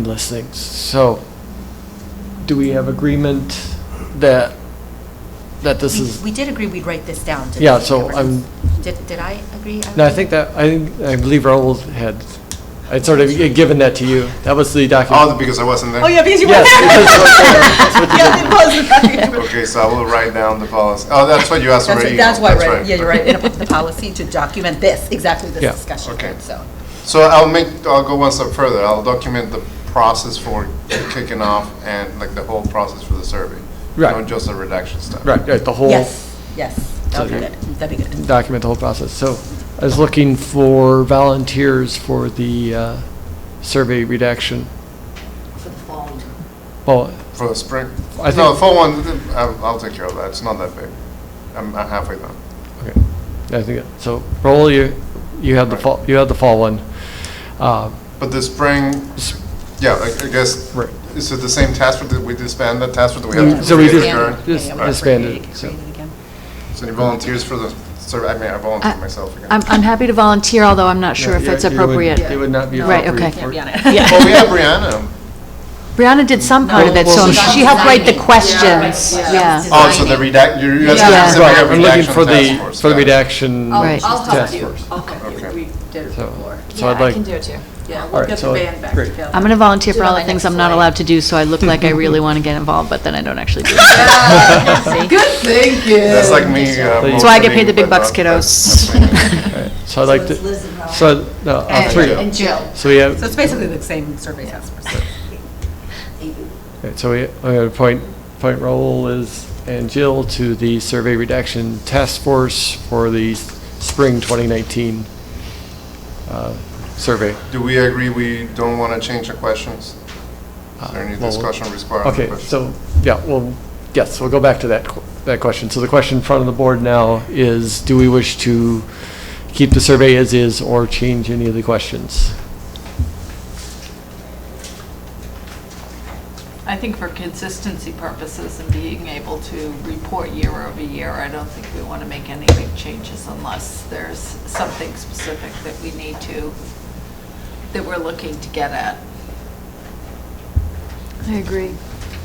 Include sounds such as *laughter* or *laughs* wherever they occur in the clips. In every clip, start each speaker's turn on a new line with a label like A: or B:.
A: endless things. So, do we have agreement that, that this
B: We-
A: is,
B: We did agree we'd write this down. didn't
A: Mm. Yeah,
B: we,
A: so
B: Amber?
A: I'm-
B: Did, did I agree?
A: no, I think that, I, think- I believe Raoul had, I'd sort of given that to you. That was the
C: Oh,
A: document.
C: because I wasn't there?
D: Oh, yeah, because you were
A: Yes,
D: *laughs*
A: because- *laughs* that's what you
D: Yeah, it was.
C: Okay, so I will write down the policy. Oh, that's what you asked
D: That's,
C: already.
D: it, that's why, right,
C: right.
D: yeah, you're right, in the policy to document this, exactly
A: Yeah.
D: this discussion,
C: Okay.
D: so.
C: So I'll make, I'll go one step further. I'll document the process for kicking off and like the whole process for the survey.
A: Right.
C: Not just the redaction stuff.
A: Right, right, the whole
D: Yes, yes, that would be
A: Okay.
D: good, that'd be good.
A: document, the whole process. So, I was looking for volunteers for the uh, survey redaction. For the fall.
C: For the spring?
A: I
C: No,
A: think-
C: the fall one, I'll, I'll take care of that. It's not that big. I'm I'm halfway done.
A: Okay, I think, so, Raoul, you, you had the
C: Right.
A: fall, you had the fall one. Uh,
C: But the spring,
A: s-
C: yeah, I I guess,
A: Right.
C: is it the same task force that we disbanded, that task force that we
A: Yeah.
C: have? to
A: So we
C: create
A: just-
C: current?
A: just
D: Yeah, yeah, we're
A: disbanded,
D: creating-
A: so.
D: creating again.
C: So any volunteers for the survey? I mean, I volunteer myself again.
E: I'm, I'm happy to volunteer, although I'm not sure if
A: Yeah,
E: it's
A: you would-
E: appropriate.
A: It would not be
D: No.
A: appropriate.
E: Right, okay.
A: for-
D: Can't be on it.
C: Well, we have Brianna.
E: Brianna did some part of it,
A: Well,
E: so
A: well,
E: she helped write the questions, yeah.
C: Oh, so the redact, you're, you're
E: Yeah.
A: Right,
C: asking specifically
A: I'm
C: about
A: looking
C: redaction
A: for
C: task
A: the,
C: force.
A: for the
C: got it.
A: redaction
F: Oh, I'll- I'll help
A: task
F: you.
A: force.
F: I'll help you.
C: Okay.
F: We did it
A: So-
F: before.
A: so I'd
F: Yeah, I
A: like-
F: can do it too. Yeah,
A: All
F: we'll
A: right,
F: get the
A: so-
F: band back
A: great.
F: together.
D: *laughs*
E: I'm going to volunteer for
F: Do it
E: all
F: on
E: the
F: my
E: things
F: next
E: I'm not
F: slide.
E: allowed to do, so I look like I really want to get involved, but then I don't actually do.
A: *laughs*
F: Good thinking.
C: That's like me. uh,
A: That's
E: That's why I get
C: motioning,
E: paid the big
C: but uh,
E: bucks,
C: not-
E: kiddos. *laughs*
A: Right, So I'd like to, so, no, uh,
F: And-
A: three.
F: And Jill.
A: So we
D: So
A: have,
D: it's basically the same survey task force.
A: right, so we, I'm going to point, point Raoul is, and Jill to the survey redaction task force for the s- spring 2019 uh, survey.
C: Do we agree we don't want to change the questions? Is there any
A: Uh, well,
C: discussion required? on the
A: Okay,
C: question?
A: so, yeah, well, yes, we'll go back to that, qu- that question. So the question in front of the board now is, do we wish to keep the survey as is or change any of the questions?
G: I think for consistency purposes and being able to report year over year, I don't think we want to make any big changes unless there's something specific that we need to, that we're looking to get at.
E: I agree.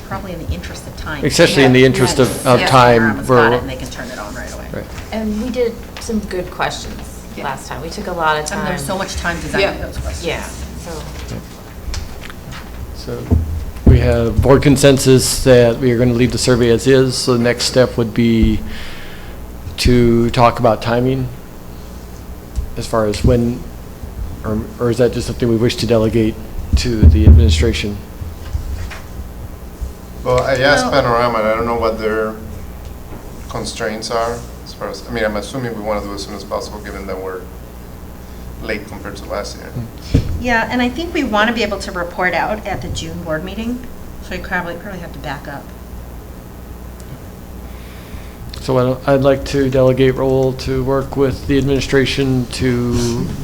D: Probably in the interest of time.
A: Especially in the interest of, of
D: Yeah,
A: time,
D: Rama's got it,
A: we're,
D: And they can turn it on right away.
A: right.
F: And we did some good questions
G: Yeah.
F: last time. We took a lot of time.
D: And there's so much time designing those questions.
F: Yeah, so.
A: So we have board consensus that we are going to leave the survey as is. So the next step would be to talk about timing as far as when, or or is that just something we wish to delegate to the administration?
C: Well, I asked Panorama, and I don't know what their constraints are as far as, I mean, I'm assuming we want to do as soon as possible, given that we're late compared to last year.
A: Hmm.
H: Yeah, and I think we want to be able to report out at the June board meeting, so we probably, probably have to back up.
A: So I'd- I'd like to delegate role to work with the administration to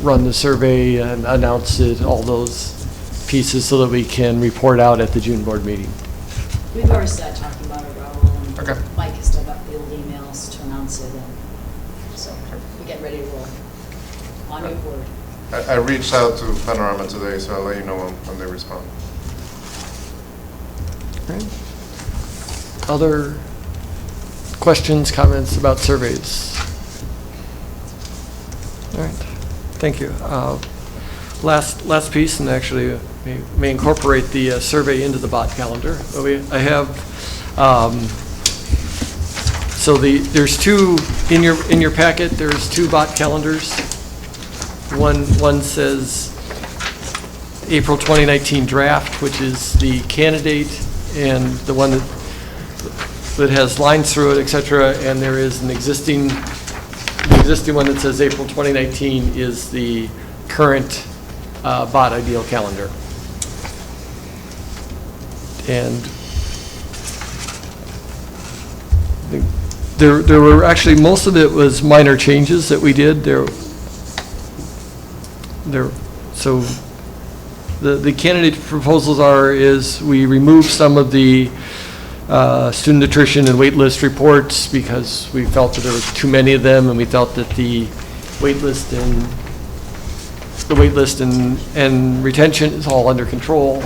A: run the survey and announce it, all those pieces, so that we can report out at the June board meeting.
I: We've already started talking about it, Raul,
C: Okay.
I: and Mike has dug up the old emails to announce it, and so we get ready to roll. On your board.
C: I, I reached out to Panorama today, so I'll let you know when, when they respond.
A: Other questions, comments about surveys? All right, thank you. Uh, Last, last piece, and actually uh, may- may incorporate the uh, survey into the bot calendar. But we- I have, um, so the, there's two, in your, in your packet, there's two bot calendars. One, one says April 2019 draft, which is the candidate, and the one that that has lines through it, et cetera, and there is an existing, the existing one that says April 2019 is the current uh, bot ideal calendar. And the- there, there were, actually, most of it was minor changes that we did. There, there, so the, the candidate proposals are, is we remove some of the uh, student attrition and waitlist reports because we felt that there was too many of them, and we felt that the waitlist and, the waitlist and, and retention is all under control.